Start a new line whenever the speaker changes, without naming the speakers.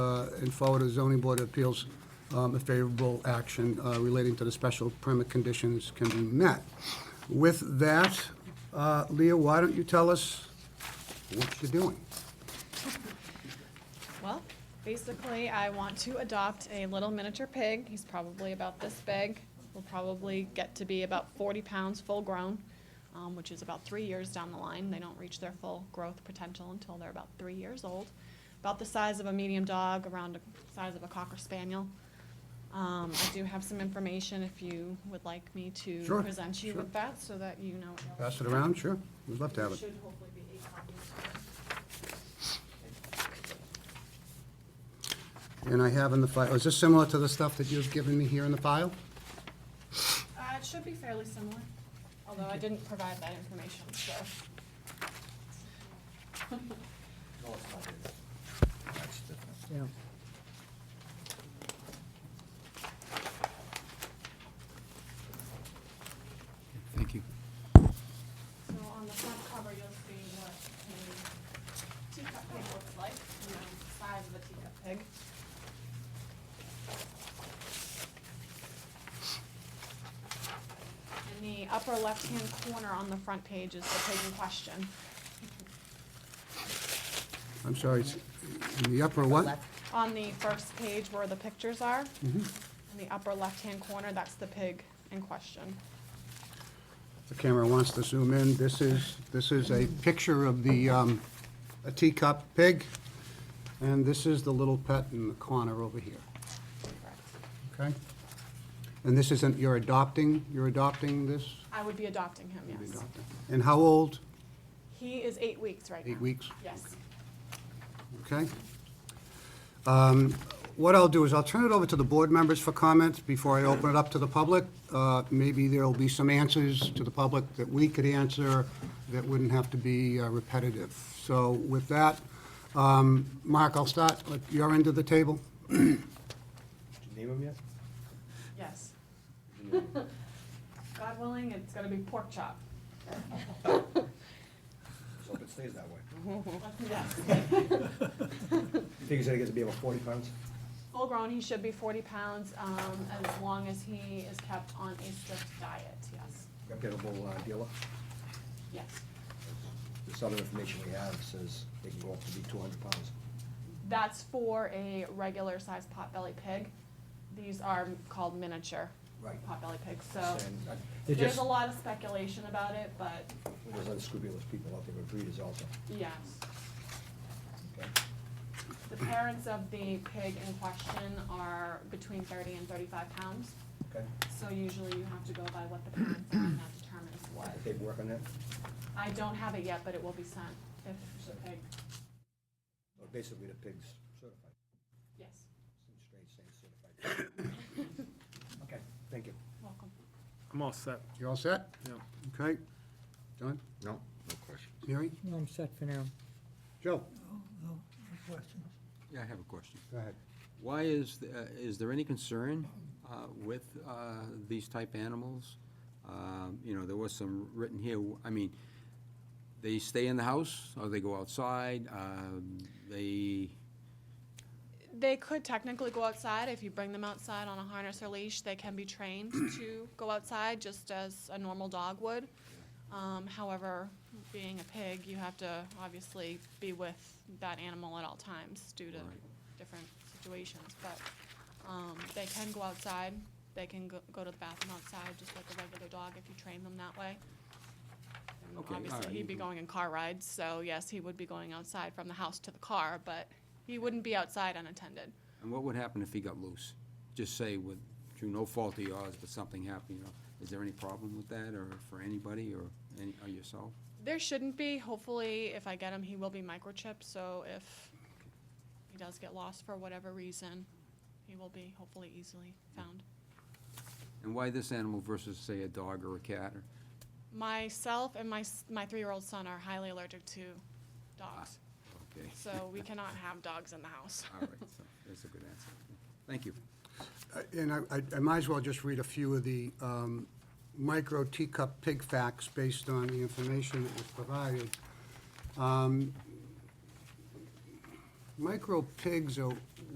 and forward to the uh, zoning board of appeals um, a favorable action uh, relating to the special permit conditions can be met. With that, uh, Leah, why don't you tell us what you're doing?
Well, basically, I want to adopt a little miniature pig. He's probably about this big. Will probably get to be about 40 pounds full grown, um, which is about three years down the line. They don't reach their full growth potential until they're about three years old. About the size of a medium dog, around the size of a cocker spaniel. Um, I do have some information if you would like me to
Sure,
present you
sure.
with that so that you know.
Pass it around, sure? We'd love to have it.
Should hopefully be eight copies.
And I have in the file, is this similar to the stuff that you've given me here in the file?
Uh, it should be fairly similar, although I didn't provide that information, so.
Yeah.
Thank you.
So on the front cover, you'll see what a teacup pig looks like, you know, the size of a teacup pig. In the upper left-hand corner on the front page is the pig in question.
I'm sorry, it's in the upper what?
On the first page where the pictures are, in the upper left-hand corner, that's the pig in question.
The camera wants to zoom in. This is, this is a picture of the, um, a teacup pig, and this is the little pet in the corner over here,
Correct.
okay? And this isn't, you're adopting, you're adopting this?
I would be adopting him,
You're
yes.
adopting. And how old?
He is eight weeks right now.
Eight weeks?
Yes.
Okay. Um, What I'll do is I'll turn it over to the board members for comments before I open it up to the public. Uh, Maybe there'll be some answers to the public that we could answer that wouldn't have to be uh, repetitive. So with that, um, Mark, I'll start at your end of the table.
Did you name him yet?
Yes. God willing, it's gonna be pork chop.
Let's hope it stays that way.
Yes.
You think he's gonna get to be about forty pounds?
Full grown, he should be forty pounds, um, as long as he is kept on a strict diet, yes.
Get a little uh, dealer.
Yes.
This other information we have says they can go up to be two hundred pounds.
That's for a regular sized potbelly pig. These are called miniature
Right.
potbelly pigs, so
And, uh, They're
there's
just,
a lot of speculation about it, but
there's unscrupulous people out there with breeders also.
yes.
okay?
The parents of the pig in question are between thirty and thirty-five pounds,
Okay.
so usually you have to go by what the parents are, and that determines what.
If they work on that,
I don't have it yet, but it will be sent if the pig,
well, basically the pig's certified,
yes,
some strange saying certified. Okay, thank you.
welcome.
I'm all set.
You all set?
Yeah.
Okay. John?
No, no question.
Mary?
No, I'm set for now.
Joe?
Yeah, I have a question.
Go ahead.
Why is, th- uh, is there any concern uh, with uh, these type animals? Um, You know, there was some written here, I mean, they stay in the house, or they go outside, um, they,
They could technically go outside, if you bring them outside on a harness or leash, they can be trained to go outside, just as a normal dog would. Um, however, being a pig, you have to obviously be with that animal at all times due to
Right.
different situations, but, um, they can go outside, they can go, go to the bathroom outside, just like a regular dog, if you train them that way. And
Okay, all
Obviously,
right,
he'd be
mhm.
going in car rides, so yes, he would be going outside from the house to the car, but he wouldn't be outside unattended.
and what would happen if he got loose? Just say with, through no fault of yours, but something happened, you know, is there any problem with that, or for anybody, or any, or yourself?
There shouldn't be. Hopefully, if I get him, he will be microchipped. So if he does get lost for whatever reason, he will be hopefully easily found.
And why this animal versus, say, a dog or a cat, or,
Myself and my s- my three-year-old son are highly allergic to dogs,
Ah. okay,
so we cannot have dogs in the house.
all right, so, that's a good answer. Thank you.
Uh, And I- I, I might as well just read a few of the um, micro teacup pig facts based on the information that was provided. Um, Micro pigs are